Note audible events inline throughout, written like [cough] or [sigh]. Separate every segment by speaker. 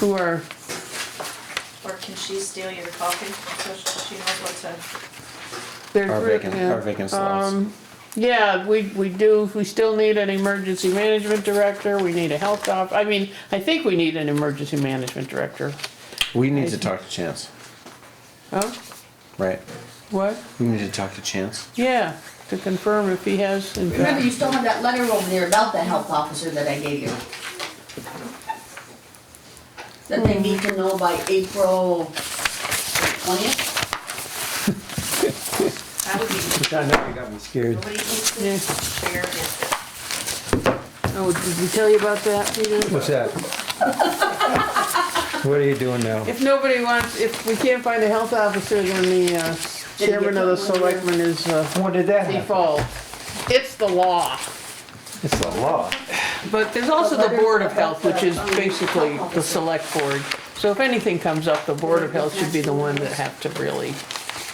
Speaker 1: who are,
Speaker 2: Or can she steal your coffee so she knows what to?
Speaker 1: they're.
Speaker 3: Our vacant,
Speaker 1: yeah. Um,
Speaker 3: our vacant slots.
Speaker 1: Yeah, we, we do, we still need an emergency management director, we need a health op, I mean, I think we need an emergency management director.
Speaker 3: We need to talk to Chance,
Speaker 1: Oh,
Speaker 3: right?
Speaker 1: what?
Speaker 3: We need to talk to Chance.
Speaker 1: Yeah, to confirm if he has, in fact,
Speaker 4: Remember, you still have that letter over there about the health officer that I gave you. That they need to know by April twentieth?
Speaker 2: That would be,
Speaker 5: I know you got me scared.
Speaker 2: nobody eats
Speaker 1: Yeah.
Speaker 2: it, share it.
Speaker 1: oh, did we tell you about that? Peter?
Speaker 5: What's
Speaker 3: [laughs]
Speaker 5: that? What are you doing now?
Speaker 1: If nobody wants, if we can't find a health officer, then the uh,
Speaker 4: Did you
Speaker 1: chairman of the
Speaker 4: put one in?
Speaker 1: selectmen is uh,
Speaker 5: When did that happen?
Speaker 1: default. It's the law.
Speaker 5: It's the law.
Speaker 1: But there's also
Speaker 4: The
Speaker 1: the Board of
Speaker 4: letter
Speaker 1: Health, which is
Speaker 4: about the, um,
Speaker 1: basically
Speaker 4: health
Speaker 1: the
Speaker 4: officer.
Speaker 1: select board. So if anything comes up, the Board of Health should be the one that have to really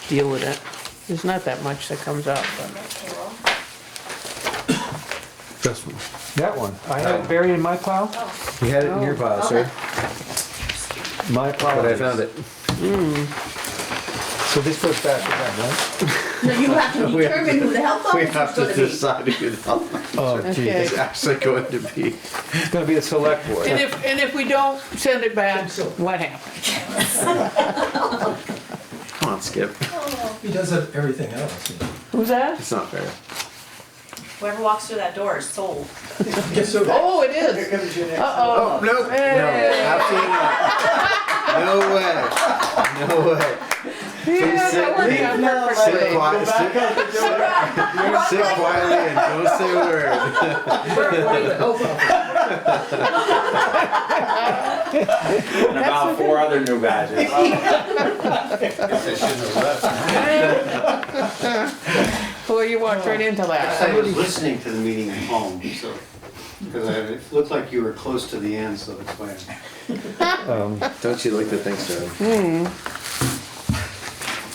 Speaker 1: deal with it. There's not that much that comes up, but
Speaker 2: Carol?
Speaker 3: This one.
Speaker 5: That one. I had it buried in my pile?
Speaker 2: Oh,
Speaker 3: You had it in your pile, sir,
Speaker 5: My pile.
Speaker 3: but I found it.
Speaker 5: So this goes back to that,
Speaker 4: No, you have
Speaker 3: [laughs]
Speaker 4: to determine who the health
Speaker 3: We
Speaker 4: officer's
Speaker 3: have to
Speaker 4: Oh, gonna be.
Speaker 3: decide who the hell
Speaker 5: right? Oh, gee.
Speaker 1: Okay.
Speaker 3: is actually going to be.
Speaker 5: It's gonna be the select
Speaker 1: And
Speaker 5: board.
Speaker 1: if, and if we don't send it back, what happens?
Speaker 3: Come on, Skip.
Speaker 6: He does have everything else.
Speaker 1: Who's that?
Speaker 3: It's not fair.
Speaker 2: Whoever walks through that door is sold.
Speaker 6: Yes, so
Speaker 1: Oh, it is.
Speaker 4: Oh,
Speaker 1: Uh-oh.
Speaker 3: Oh, No, no, absolutely not. No way. No way.
Speaker 1: Yeah, that worked out
Speaker 3: Sit
Speaker 1: perfectly.
Speaker 3: quiet, sit, sit quietly and don't say a word.
Speaker 7: and about four other new badges.
Speaker 1: Well, you walked right into
Speaker 8: I
Speaker 1: that.
Speaker 8: was listening to the meeting at home, so, because it looked like you were close to the end, so that's why. I'm-
Speaker 3: Don't you like to think so?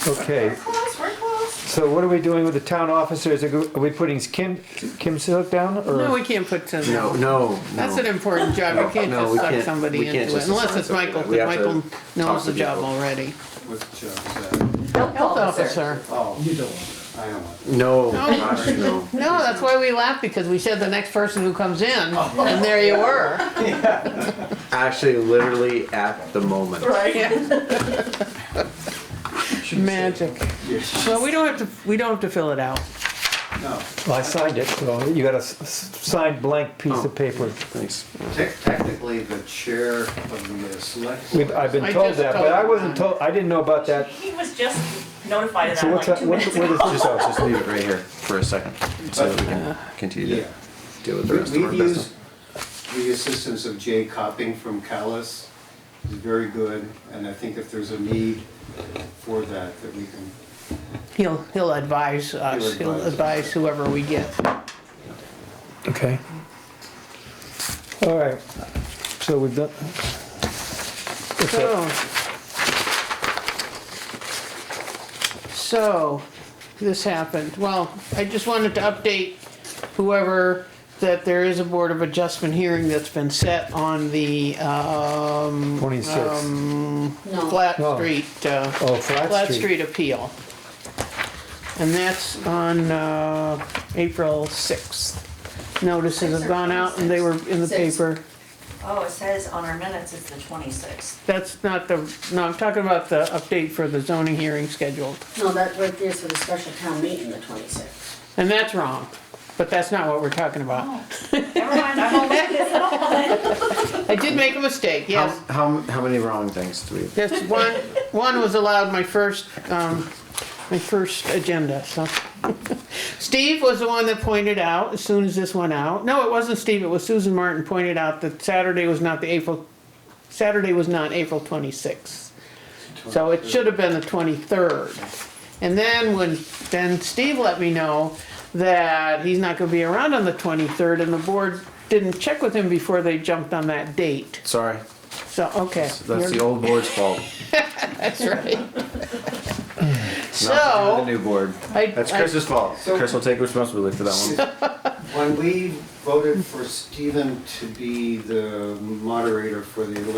Speaker 5: Okay,
Speaker 2: Close, we're close.
Speaker 5: so what are we doing with the town officers? Are go- are we putting Kim, Kim Silk down
Speaker 1: No,
Speaker 5: or?
Speaker 1: we can't put some.
Speaker 3: No, no,
Speaker 1: That's an
Speaker 3: no.
Speaker 1: important job, you can't
Speaker 3: No,
Speaker 1: just
Speaker 3: we
Speaker 1: suck
Speaker 3: can't-
Speaker 1: somebody
Speaker 3: we can't
Speaker 1: into it,
Speaker 3: just
Speaker 1: unless
Speaker 3: assign
Speaker 1: it's Michael,
Speaker 3: somebody. We
Speaker 1: because
Speaker 3: have to
Speaker 1: Michael
Speaker 3: talk
Speaker 1: knows
Speaker 3: to
Speaker 1: the job
Speaker 3: people.
Speaker 1: already.
Speaker 8: What job is that?
Speaker 1: Health officer.
Speaker 8: Oh,
Speaker 6: you don't.
Speaker 8: I don't want
Speaker 3: No, gosh, no.
Speaker 1: No, that's why we laughed, because we said the next person who comes in, and there you were.
Speaker 3: Actually, literally at the moment.
Speaker 1: Yeah. Magic.
Speaker 8: Yes.
Speaker 1: Well, we don't have to, we don't have to fill it out.
Speaker 8: No,
Speaker 5: Well, I signed it, so you got a s- s- signed blank piece of paper.
Speaker 3: Thanks.
Speaker 8: Tec- technically, the chair of the uh, select.
Speaker 5: We've, I've
Speaker 1: I
Speaker 5: been told
Speaker 1: just
Speaker 5: that,
Speaker 1: told
Speaker 5: but I
Speaker 1: him
Speaker 5: wasn't
Speaker 1: that.
Speaker 5: told, I didn't know about that.
Speaker 2: He was just notified of
Speaker 5: So
Speaker 2: that
Speaker 5: what's
Speaker 2: like
Speaker 5: that,
Speaker 2: two
Speaker 5: what
Speaker 2: minutes
Speaker 5: what
Speaker 2: ago.
Speaker 5: is this?
Speaker 3: Just, I'll just leave it right here for a second, so that we can continue to
Speaker 8: Yeah.
Speaker 3: deal with the
Speaker 8: We-
Speaker 3: rest of our
Speaker 8: We've used
Speaker 3: business.
Speaker 8: the assistance of Jay Copping from Callis, he's very good, and I think if there's a need for that, that we can,
Speaker 1: He'll, he'll advise us,
Speaker 8: He'll
Speaker 1: he'll
Speaker 8: advise
Speaker 1: advise whoever we get.
Speaker 5: Okay. All right, so we've done. Um, What's up?
Speaker 1: So. So, this happened. Well, I just wanted to update whoever that there is a Board of Adjustment hearing that's been set on the, um,
Speaker 5: 26.
Speaker 4: No,
Speaker 1: Flat
Speaker 5: Oh.
Speaker 1: Street, uh,
Speaker 5: Oh, Flat
Speaker 1: Flat
Speaker 5: Street.
Speaker 1: Street appeal. And that's on, uh, April sixth. Notices have gone out and they were in the
Speaker 4: Sixth.
Speaker 1: paper.
Speaker 2: Oh, it says on our minutes it's the twenty-sixth.
Speaker 1: That's not the, no, I'm talking about the update for the zoning hearing scheduled.
Speaker 4: no, that right there's for the special town meeting, the twenty-sixth.
Speaker 1: And that's wrong, but that's not what we're talking about.
Speaker 2: Never mind, I won't look
Speaker 5: [laughs]
Speaker 2: this up.
Speaker 1: I did make a mistake,
Speaker 3: How,
Speaker 1: yes.
Speaker 3: how, how many wrong things do we?
Speaker 1: Yes, one, one was allowed my first, um, my first agenda, so. [laughs] Steve was the one that pointed out, as soon as this went out, no, it wasn't Steve, it was Susan Martin pointed out that Saturday was not the April, Saturday was not April twenty-sixth. So it should have been the twenty-third. And then when, then Steve let me know that he's not gonna be around on the twenty-third and the board didn't check with him before they jumped on that date.
Speaker 3: Sorry,
Speaker 1: So, okay.
Speaker 3: that's the
Speaker 1: you're-
Speaker 3: old board's fault,
Speaker 1: That's right.
Speaker 3: not the
Speaker 1: [laughs] So,
Speaker 3: new board.
Speaker 1: I,
Speaker 3: That's
Speaker 1: I-
Speaker 3: Chris's fault. Chris will take responsibility for that one.
Speaker 8: When we voted for Stephen to be the moderator for the